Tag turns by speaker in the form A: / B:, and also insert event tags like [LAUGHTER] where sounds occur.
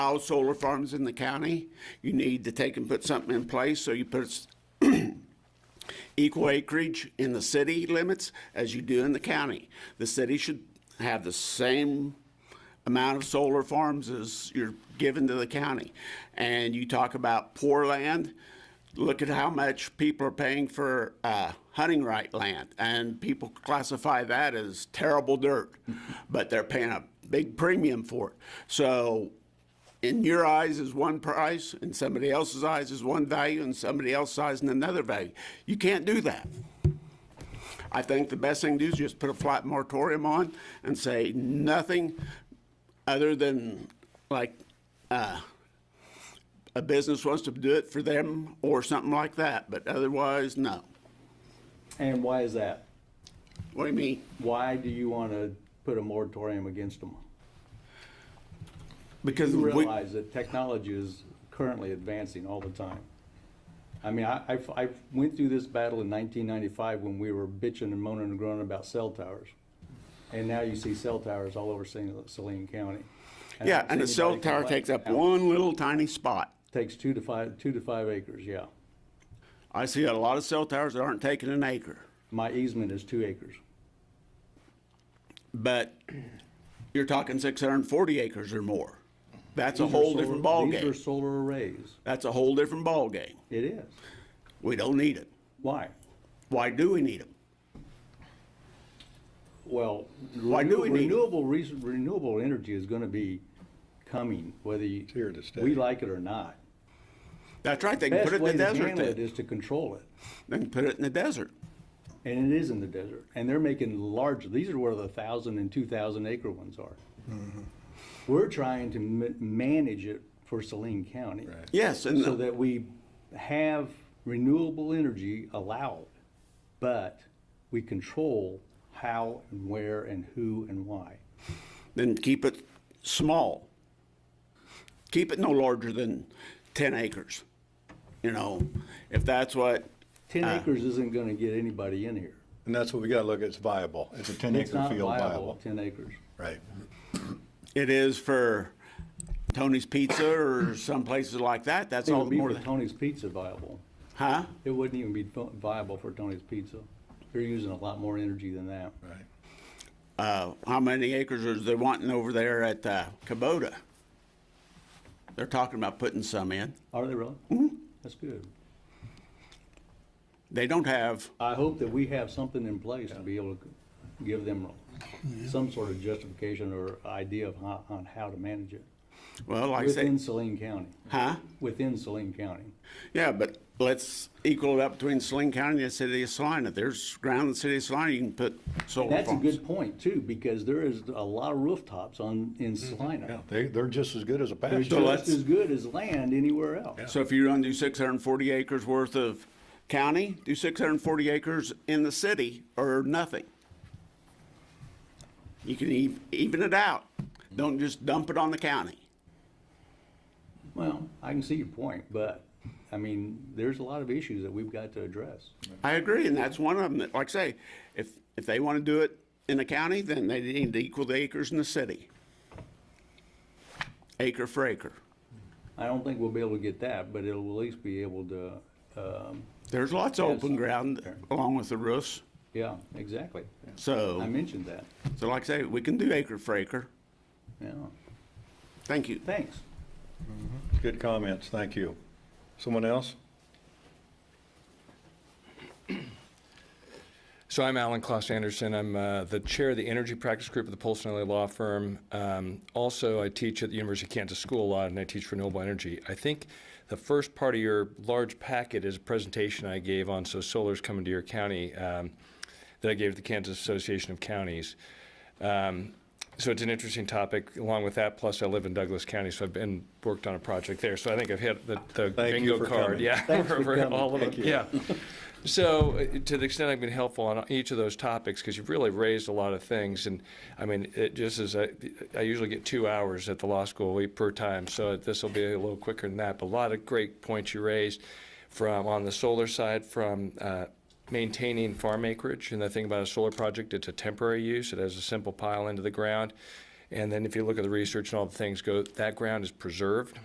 A: all solar farms in the county, you need to take and put something in place, so you put s- [CLEARS THROAT] equal acreage in the city limits as you do in the county. The city should have the same amount of solar farms as you're giving to the county. And you talk about poor land, look at how much people are paying for uh, hunting right land. And people classify that as terrible dirt, but they're paying a big premium for it. So in your eyes is one price, in somebody else's eyes is one value, and somebody else's eyes is another value. You can't do that. I think the best thing to do is just put a flat moratorium on and say nothing other than like uh, a business wants to do it for them or something like that, but otherwise, no.
B: And why is that?
A: What do you mean?
B: Why do you want to put a moratorium against them?
A: Because
B: You
A: we,
B: realize that technology is currently advancing all the time. I mean, I, I've- I went through this battle in 1995 when we were bitching and moaning and groaning about cell towers. And now you see cell towers all over Saline Saline County. I
A: yeah,
B: don't
A: and a
B: see
A: cell
B: anybody
A: tower
B: complaining.
A: takes up
B: Now,
A: one little tiny spot.
B: Takes two to five, two to five acres, yeah.
A: I see a lot of cell towers that aren't taking an acre.
B: My easement is two acres.
A: but you're talking 640 acres or more. That's a
B: These are
A: whole
B: solar-
A: different
B: These are
A: ballgame.
B: solar arrays.
A: That's a whole different ballgame.
B: It is.
A: We don't need it.
B: Why?
A: Why do we need them?
B: Well,
A: Why do we
B: renew-
A: need it?
B: renewable, reason- renewable energy is gonna be coming, whether you.
C: here to stay.
B: We like it or not.
A: That's right, they can put
B: Best
A: it in
B: way
A: the
B: to
A: desert.
B: handle it
A: then.
B: is to control it,
A: They can put it in the desert.
B: and it is in the desert, and they're making large, these are where the thousand and two thousand acre ones are.
A: Mm-hmm.
B: We're trying to ma- manage it for Saline County.
A: Yes,
B: So
A: and
B: that we have renewable energy allowed, but we control how and where and who and why.
A: then keep it small. Keep it no larger than 10 acres. You know, if that's what,
B: Ten
A: Ah.
B: acres isn't gonna get anybody in here.
C: And that's what we gotta look at, it's viable. It's a ten
B: It's
C: acre
B: not
C: field
B: viable,
C: viable.
B: ten acres.
C: Right.
A: it is for Tony's Pizza or some places like that, that's
B: It
A: all
B: would
A: the
B: be
A: more
B: for
A: than,
B: Tony's Pizza viable.
A: huh?
B: It wouldn't even be fu- viable for Tony's Pizza. They're using a lot more energy than that.
C: Right.
A: uh, how many acres are they wanting over there at uh, Kubota? They're talking about putting some in.
B: Are they really?
A: Mm-hmm.
B: That's good.
A: They don't have,
B: I hope that we have something in place to be able to give them some sort of justification or idea of how, on how to manage it.
A: well, like I say,
B: Within Saline County,
A: huh?
B: within Saline County.
A: Yeah, but let's equal it up between Saline County and the city of Salina. If there's ground in the city of Salina, you can put solar
B: That's a
A: farms.
B: good point too, because there is a lot of rooftops on, in
C: Yeah,
B: Salina.
C: they, they're just as good as a
B: They're
C: pasture.
B: just
A: let's-
B: as good as land anywhere else.
A: So if you're gonna do six hundred and forty acres worth of county, do six hundred and forty acres in the city or nothing. You can ev- even it out. Don't just dump it on the county.
B: Well, I can see your point, but, I mean, there's a lot of issues that we've got to address.
A: I agree, and that's one of them. That, like I say, if, if they want to do it in the county, then they need to equal the acres in the city. Acre for acre.
B: I don't think we'll be able to get that, but it'll at least be able to, um,
A: There's lots of open
B: Yes.
A: ground along with the roofs,
B: yeah, exactly. I
A: so,
B: mentioned that,
A: so like I say, we can do acre for acre.
B: yeah.
A: Thank you.
B: Thanks.
C: Good comments, thank you. Someone else?
D: So I'm Alan Klaus Anderson. I'm uh, the chair of the Energy Practice Group of the Polson LA Law Firm. Um, also, I teach at the University of Kansas School a lot, and I teach renewable energy. I think the first part of your large packet is a presentation I gave on so solar's coming to your county um, that I gave to the Kansas Association of Counties. Um, so it's an interesting topic. Along with that, plus I live in Douglas County, so I've been worked on a project there. So I think I've hit the, the
C: Thank you
D: bingo
C: for
D: card.
C: coming.
D: Yeah,
B: Thanks for coming.
D: all of it.
B: Thank
D: Yeah. So, uh, to the extent I've been helpful on each of those topics, because you've really raised a lot of things, and I mean, it just is, I I usually get two hours at the law school week per time, so this will be a little quicker than that, but a lot of great points you raised from, on the solar side, from uh, maintaining farm acreage, and the thing about a solar project, it's a temporary use, it has a simple pile into the ground, And then if you look at the research and all the things go, that ground is preserved.